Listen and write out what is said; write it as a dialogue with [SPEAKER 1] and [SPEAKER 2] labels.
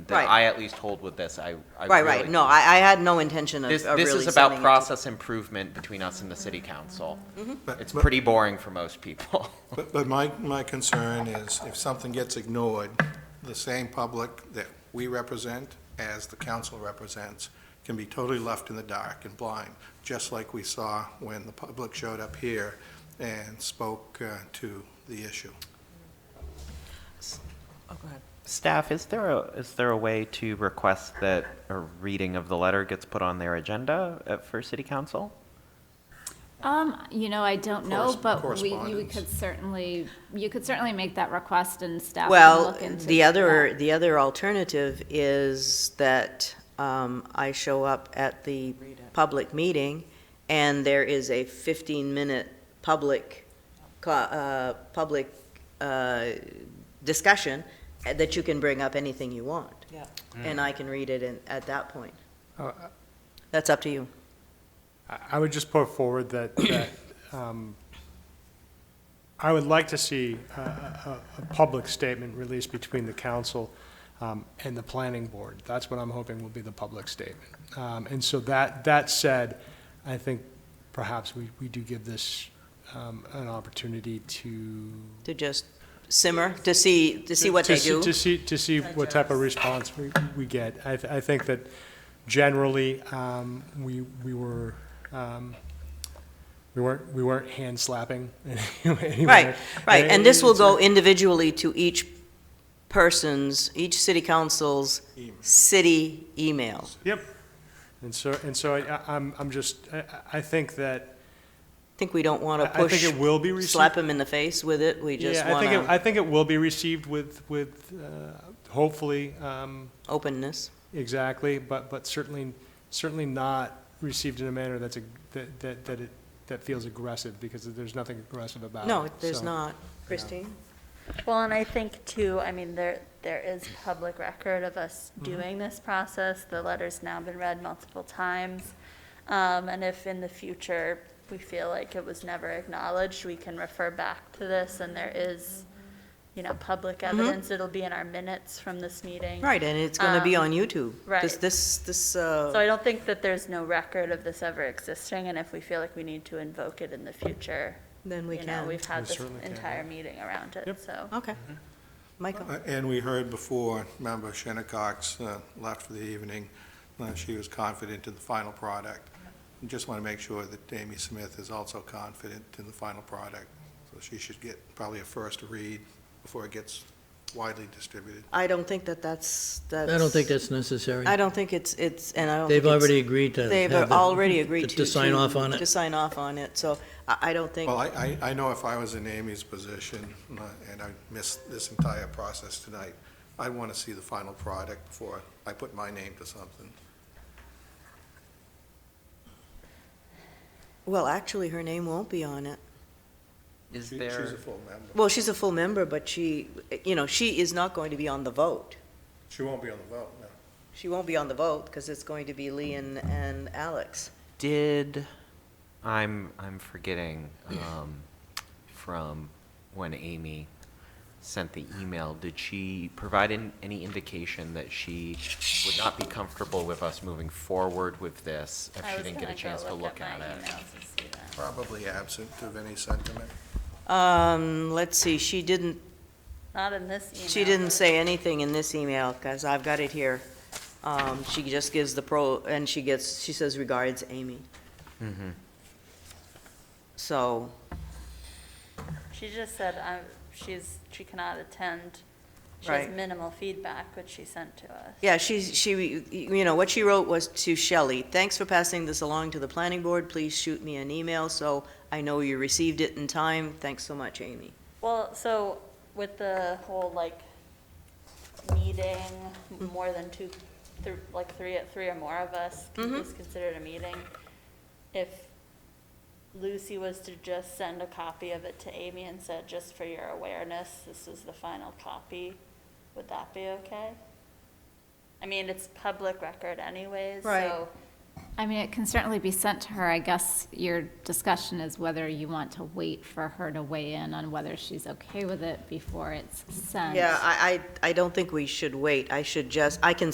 [SPEAKER 1] that
[SPEAKER 2] Right.
[SPEAKER 1] I at least hold with this. I, I
[SPEAKER 2] Right,
[SPEAKER 1] really-
[SPEAKER 2] right, no, I, I had no intention of
[SPEAKER 1] This,
[SPEAKER 2] of really
[SPEAKER 1] this is
[SPEAKER 2] sending
[SPEAKER 1] about
[SPEAKER 2] it to-
[SPEAKER 1] process improvement between us and the city council.
[SPEAKER 3] But-
[SPEAKER 1] It's
[SPEAKER 3] but-
[SPEAKER 1] pretty boring for most people.
[SPEAKER 3] But, but my, my concern is if something gets ignored, the same public that we represent as the council represents can be totally left in the dark and blind, just like we saw when the public showed up here and spoke uh, to the issue.
[SPEAKER 2] Oh, go ahead.
[SPEAKER 4] Staff, is there a, is there a way to request that a reading of the letter gets put on their agenda uh, for city council?
[SPEAKER 5] Um, you know, I don't know,
[SPEAKER 3] Corres-
[SPEAKER 5] but we, you
[SPEAKER 3] correspondence.
[SPEAKER 5] could certainly, you could certainly make that request and staff will
[SPEAKER 2] Well,
[SPEAKER 5] look into
[SPEAKER 2] the other,
[SPEAKER 5] that.
[SPEAKER 2] the other alternative is that um, I show up at the public meeting, and there is a 15-minute public, co- uh, public uh, discussion that you can bring up anything you want.
[SPEAKER 6] Yeah.
[SPEAKER 2] And I can read it in- at that point.
[SPEAKER 7] Uh,
[SPEAKER 2] That's up to you.
[SPEAKER 7] I I would just put forward that, that, um, I would like to see a, a, a public statement released between the council um, and the planning board. That's what I'm hoping will be the public statement. Um, And so that, that said, I think perhaps we, we do give this um, an opportunity to.
[SPEAKER 2] To just simmer, to see, to see what
[SPEAKER 7] to
[SPEAKER 2] they do.
[SPEAKER 7] To see, to see what type of response we, we get. I, th- I think that generally, um, we, we were, um, we weren't, we weren't hand slapping anyway.
[SPEAKER 2] Right, right, and this will
[SPEAKER 7] It's a-
[SPEAKER 2] go individually to each person's, each city council's city email.
[SPEAKER 7] Yep. And so, and so I, I- I'm, I'm just, I, I- I think that,
[SPEAKER 2] I think we don't want
[SPEAKER 7] I
[SPEAKER 2] to
[SPEAKER 7] I think
[SPEAKER 2] push,
[SPEAKER 7] it will be received.
[SPEAKER 2] slap them in the face with it, we just
[SPEAKER 7] Yeah, I
[SPEAKER 2] want
[SPEAKER 7] think, it-
[SPEAKER 2] to
[SPEAKER 7] I think it will be received with, with, uh, hopefully, um,
[SPEAKER 2] openness.
[SPEAKER 7] Exactly, but, but certainly, certainly not received in a manner that's, a- that, that, that it, that feels aggressive, because there's nothing aggressive about it.
[SPEAKER 2] No, there's
[SPEAKER 7] Uh, so.
[SPEAKER 2] not. Christine?
[SPEAKER 8] Well, and I think too, I mean, there, there is public record of us
[SPEAKER 2] Mm-hmm.
[SPEAKER 8] doing this process. The letter's now been read multiple times. Um, and if in the future we feel like it was never acknowledged, we can refer back to this and there is, you know, public evidence. It'll be in our minutes from this meeting.
[SPEAKER 2] Mm-hmm. Right, and it's going to be
[SPEAKER 8] Um,
[SPEAKER 2] on YouTube.
[SPEAKER 8] right.
[SPEAKER 2] This, this, this,
[SPEAKER 8] So
[SPEAKER 2] uh,
[SPEAKER 8] I don't think that there's no record of this ever existing and if we feel like we need to invoke it in the future,
[SPEAKER 2] then we
[SPEAKER 8] you know,
[SPEAKER 2] can.
[SPEAKER 8] we've had
[SPEAKER 7] We
[SPEAKER 8] this
[SPEAKER 7] certainly can.
[SPEAKER 8] entire meeting around it,
[SPEAKER 7] Yep.
[SPEAKER 8] so.
[SPEAKER 2] Okay.
[SPEAKER 7] Mm-hmm.
[SPEAKER 2] Michael?
[SPEAKER 3] Uh, And we heard before, Member Shinnecock's uh, left for the evening, uh, she was confident in the final product. We Just want to make sure that Amy Smith is also confident in the final product, so she should get probably a first read before it gets widely distributed.
[SPEAKER 2] I don't think that that's, that's.
[SPEAKER 9] I don't think that's necessary.
[SPEAKER 2] I don't think it's, it's, and I don't.
[SPEAKER 9] They've
[SPEAKER 2] think it's-
[SPEAKER 9] already agreed to.
[SPEAKER 2] They've
[SPEAKER 9] have it-
[SPEAKER 2] already agreed to.
[SPEAKER 9] To sign off on
[SPEAKER 2] To
[SPEAKER 9] it.
[SPEAKER 2] sign off on it, so I, I don't think.
[SPEAKER 3] Well, I, I I know if I was in Amy's position, uh, and I missed this entire process tonight, I'd want to see the final product before I put my name to something.
[SPEAKER 2] Well, actually, her name won't be on it.
[SPEAKER 1] Is
[SPEAKER 3] She- She's
[SPEAKER 1] there,
[SPEAKER 3] a full member.
[SPEAKER 2] Well, she's a full member, but she, you know, she is not going to be on the vote.
[SPEAKER 3] She won't be on the vote, no.
[SPEAKER 2] She won't be on the vote because it's going to be Lee and, and Alex.
[SPEAKER 1] did, I'm, I'm forgetting, um, from when Amy sent the email, did she provide an- any indication that she would not be comfortable with us moving forward with this if
[SPEAKER 8] I
[SPEAKER 1] she
[SPEAKER 8] was
[SPEAKER 1] didn't get a
[SPEAKER 8] gonna go
[SPEAKER 1] chance to look at
[SPEAKER 8] my
[SPEAKER 1] it?
[SPEAKER 8] emails and see that.
[SPEAKER 3] Probably absent of any sentiment.
[SPEAKER 2] Um, let's see, she didn't,
[SPEAKER 8] Not in this email.
[SPEAKER 2] she didn't
[SPEAKER 8] but-
[SPEAKER 2] say anything in this email because I've got it here. Um, she just gives the pro, and she gets, she says regards Amy.
[SPEAKER 1] Mm-hmm.
[SPEAKER 2] So,
[SPEAKER 8] She just said, uh, she's, she cannot attend. She has
[SPEAKER 2] Right.
[SPEAKER 8] minimal feedback, which she sent to us.
[SPEAKER 2] Yeah, she's, she, you know, what she wrote was to Shelley, thanks for passing this along to the planning board. Please shoot me an email so I know you received it in time. Thanks so much, Amy.
[SPEAKER 8] Well, so with the whole like meeting, more than two, thr- like three, three or more of us
[SPEAKER 2] Mhm.
[SPEAKER 8] is considered a meeting. If Lucy was to just send a copy of it to Amy and said, just for your awareness, this is the final copy, would that be okay? I mean, it's public record anyways,
[SPEAKER 2] Right.
[SPEAKER 8] so
[SPEAKER 5] I mean, it can certainly be sent to her. I guess your discussion is whether you want to wait for her to weigh in on whether she's okay with it before it's sent.
[SPEAKER 2] Yeah, I, I, I don't think we should wait. I should just, I can